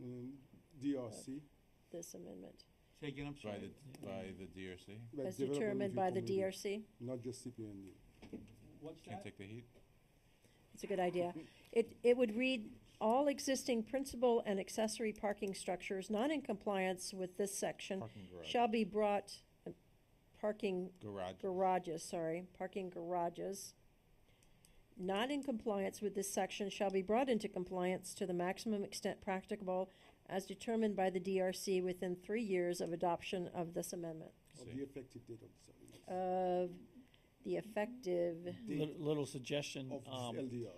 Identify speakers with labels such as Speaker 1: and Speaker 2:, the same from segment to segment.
Speaker 1: Mm, DRC,
Speaker 2: this amendment,
Speaker 3: Say again, I'm
Speaker 4: By
Speaker 3: sorry.
Speaker 4: the, by the DRC?
Speaker 1: by Development
Speaker 2: as determined
Speaker 1: Review
Speaker 2: by the
Speaker 1: Committee,
Speaker 2: DRC?
Speaker 1: Not just CPND.
Speaker 3: What's
Speaker 4: Can't
Speaker 3: that?
Speaker 4: take the heat?
Speaker 2: It's a good idea. It, it would read, all existing principal and accessory parking structures not in compliance with this section
Speaker 4: Parking garage.
Speaker 2: shall be brought, uh, parking
Speaker 4: Garage.
Speaker 2: garages, sorry, parking garages not in compliance with this section shall be brought into compliance to the maximum extent practicable as determined by the DRC within three years of adoption of this amendment,
Speaker 1: Of
Speaker 4: See.
Speaker 1: the effective date of this ordinance.
Speaker 5: Uh,
Speaker 2: of the effective,
Speaker 1: Date
Speaker 6: Lit- Little suggestion,
Speaker 1: of
Speaker 6: um,
Speaker 1: these LDRs.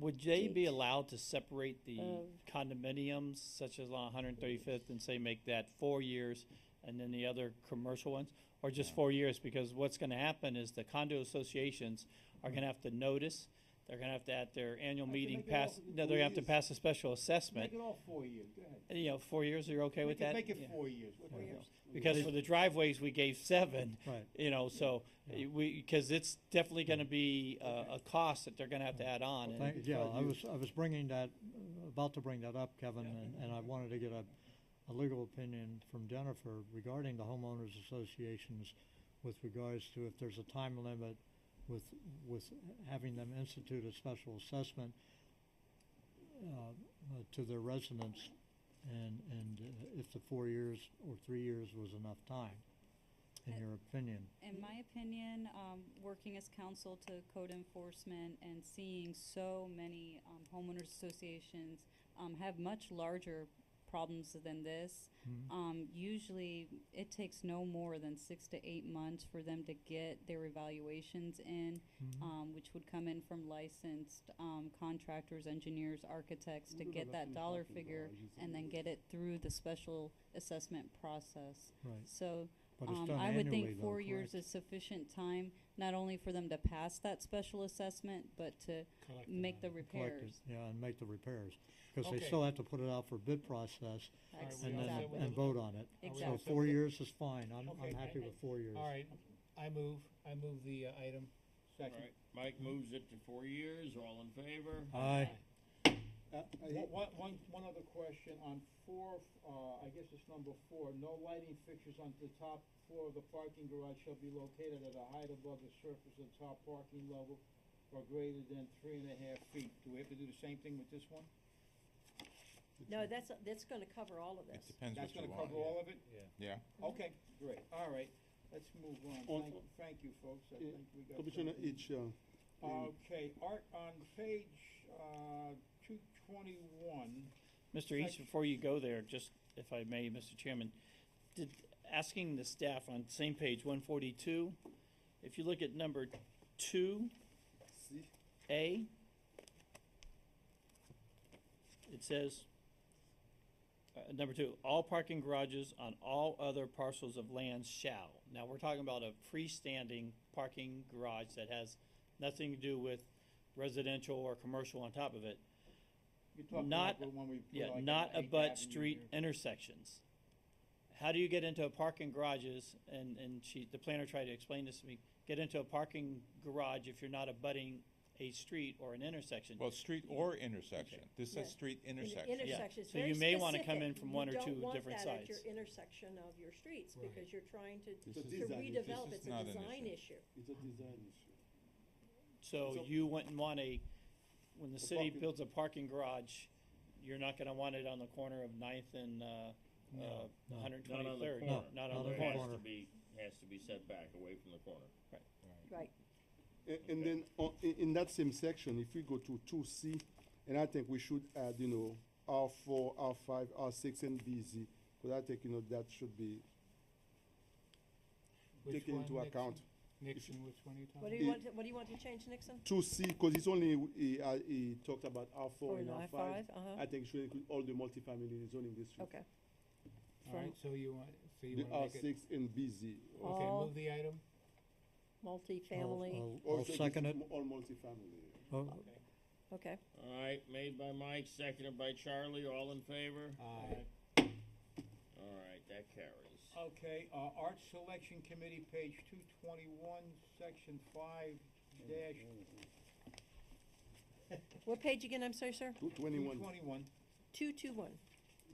Speaker 6: would they be
Speaker 2: Date
Speaker 6: allowed to separate the
Speaker 2: of-
Speaker 6: condominiums such as on 135th and say make that four years and then the other commercial ones? Or just
Speaker 4: No.
Speaker 6: four years? Because what's gonna happen is the condo associations are gonna have to notice, they're gonna have to at their annual
Speaker 3: can
Speaker 6: meeting
Speaker 3: make it
Speaker 6: pass,
Speaker 3: all
Speaker 6: no, they're gonna have to
Speaker 3: employees.
Speaker 6: pass a special
Speaker 3: Make
Speaker 6: assessment.
Speaker 3: it all four years, go ahead.
Speaker 6: You know, four years, are you okay with
Speaker 3: Make it-
Speaker 6: that?
Speaker 3: Make
Speaker 6: Yeah.
Speaker 3: it four years. What
Speaker 6: Yeah.
Speaker 3: the hell's-
Speaker 6: Because for the driveways, we gave seven.
Speaker 7: Right.
Speaker 6: You know, so
Speaker 7: Yeah.
Speaker 6: we, because it's definitely gonna be a, a cost that they're gonna have to add on. and-
Speaker 7: Thank,
Speaker 1: it's
Speaker 7: yeah,
Speaker 1: not
Speaker 7: I was,
Speaker 1: used.
Speaker 7: I was bringing that, about to bring that up, Kevin, and, and I wanted to get a, a legal opinion from Jennifer regarding the homeowners associations with regards to if there's a time limit with, with having them institute a special assessment uh, uh, to their residents and, and uh, if the four years or three years was enough time, in
Speaker 5: Uh,
Speaker 7: your opinion.
Speaker 5: In my opinion, um, working as counsel to code enforcement and seeing so many, um, homeowners associations, um, have much larger problems than this.
Speaker 7: Mhm.
Speaker 5: Um, usually, it takes no more than six to eight months for them to get their evaluations in,
Speaker 7: Mhm.
Speaker 5: um, which would come in from licensed, um, contractors, engineers, architects to
Speaker 1: What
Speaker 5: get
Speaker 1: about
Speaker 5: that
Speaker 1: the
Speaker 5: dollar
Speaker 1: parking
Speaker 5: figure
Speaker 1: garages
Speaker 5: and then
Speaker 1: the-
Speaker 5: get it through the special assessment process.
Speaker 7: Right,
Speaker 5: So,
Speaker 7: but it's
Speaker 5: um,
Speaker 7: done
Speaker 5: I would
Speaker 7: annually
Speaker 5: think
Speaker 7: though,
Speaker 5: four years
Speaker 7: correct?
Speaker 5: is sufficient time, not only for them to pass that special assessment, but to make the
Speaker 7: collect it,
Speaker 5: repairs.
Speaker 7: Yeah, and make the repairs, because they
Speaker 3: Okay.
Speaker 7: still have to put it out for bid process
Speaker 5: Ex-
Speaker 3: we
Speaker 7: and
Speaker 3: all
Speaker 7: then,
Speaker 3: set
Speaker 5: Exactly.
Speaker 3: with
Speaker 7: and vote on it. So
Speaker 5: Exactly.
Speaker 7: four years is fine, I'm,
Speaker 3: Okay,
Speaker 7: I'm happy with four years.
Speaker 3: All right, I move, I move the uh, item. Second.
Speaker 8: Mike moves it to four years, all in favor?
Speaker 7: Aye.
Speaker 1: Uh, I-
Speaker 3: One- One, one, one other question on four, uh, I guess it's number four, no lighting fixtures on the top floor of the parking garage shall be located at a height above the surface of the top parking level or greater than three and a half feet. Do we have to do the same thing with this one?
Speaker 2: no, that's, that's gonna cover all of
Speaker 4: It
Speaker 2: this.
Speaker 4: depends what
Speaker 3: That's
Speaker 4: you
Speaker 3: gonna
Speaker 4: want.
Speaker 3: cover all of it?
Speaker 4: Yeah.
Speaker 3: Okay, great, all right, let's move on.
Speaker 1: On-
Speaker 3: Thank, thank you, folks, I
Speaker 1: Yeah,
Speaker 3: think we got.
Speaker 1: Commissioner
Speaker 3: something.
Speaker 1: H, uh, in-
Speaker 3: Okay, Art, on page, uh, two twenty-one,
Speaker 6: Mr. East,
Speaker 3: Sec-
Speaker 6: before you go there, just if I may, Mr. Chairman, did, asking the staff on same page one forty-two, if you look at number two,
Speaker 1: see,
Speaker 6: A, it says, uh, number two, all parking garages on all other parcels of land shall. Now, we're talking about a freestanding parking garage that has nothing to do with residential or commercial on top of it.
Speaker 3: you're talking
Speaker 6: Not-
Speaker 3: about the one we put
Speaker 6: Yeah,
Speaker 3: like on
Speaker 6: not
Speaker 3: Eighth Avenue
Speaker 6: abut street
Speaker 3: here.
Speaker 6: intersections. How do you get into a parking garages, and, and she, the planner tried to explain this to me, get into a parking garage if you're not abutting a street or an intersection?
Speaker 4: Well, street or intersection. This
Speaker 2: Yeah.
Speaker 4: says street
Speaker 2: In-
Speaker 4: intersection.
Speaker 2: Intersection, it's
Speaker 6: So
Speaker 2: very
Speaker 6: you may wanna come
Speaker 2: specific.
Speaker 6: in from one or two different
Speaker 2: You don't want that at your
Speaker 6: sides.
Speaker 2: intersection of your streets,
Speaker 7: Right.
Speaker 2: because you're trying to,
Speaker 1: This
Speaker 2: to
Speaker 1: is- Design issue.
Speaker 2: redevelop,
Speaker 4: This
Speaker 2: it's
Speaker 4: is
Speaker 2: a
Speaker 4: not an
Speaker 2: design
Speaker 4: issue.
Speaker 2: issue.
Speaker 1: it's a design issue.
Speaker 6: So
Speaker 1: So-
Speaker 6: you wouldn't want a, when the
Speaker 1: A
Speaker 6: city
Speaker 1: parking-
Speaker 6: builds a parking garage, you're not gonna want it on the corner of Ninth and, uh, uh,
Speaker 7: No, no.
Speaker 6: hundred
Speaker 8: Not on the
Speaker 6: twenty-third.
Speaker 8: corner.
Speaker 6: Not
Speaker 7: Not
Speaker 6: on the
Speaker 7: on
Speaker 8: It
Speaker 6: corner.
Speaker 8: has to be, has to be set back away from the corner.
Speaker 2: Right,
Speaker 1: A- And then, on- i- in that same section, if we go to two C, and I think we should add, you know, R four, R five, R six, and BZ, because I think, you know, that should be
Speaker 3: Which
Speaker 1: taken
Speaker 3: one,
Speaker 1: into
Speaker 3: Nixon?
Speaker 1: account.
Speaker 3: Nixon, which one are you talking
Speaker 2: what do
Speaker 3: about?
Speaker 2: you
Speaker 1: It-
Speaker 2: want, to- what do you want to change, Nixon?
Speaker 1: Two C, because it's only, he, uh, he talked about R four and Oh, R five.
Speaker 2: uh-huh,
Speaker 1: I think it should include all the multifamily zoning districts.
Speaker 2: okay.
Speaker 3: All right, so you want, so you
Speaker 1: The R
Speaker 3: want to make it,
Speaker 1: six and BZ.
Speaker 3: okay,
Speaker 2: All-
Speaker 3: move the item?
Speaker 7: I'll,
Speaker 2: Multifamily,
Speaker 7: I'll- I'll
Speaker 1: Also,
Speaker 7: second it,
Speaker 1: it's All multifamily.
Speaker 7: Oh,
Speaker 2: okay.
Speaker 8: All right, made by Mike, seconded by Charlie, all in favor?
Speaker 3: Aye.
Speaker 8: All right, that carries.
Speaker 3: Okay, uh, Art Selection Committee, page two twenty-one, section five dash
Speaker 2: What page again, I'm sorry, sir?
Speaker 1: Two
Speaker 3: two
Speaker 1: twenty-one.
Speaker 3: twenty-one.
Speaker 2: Two, two, one.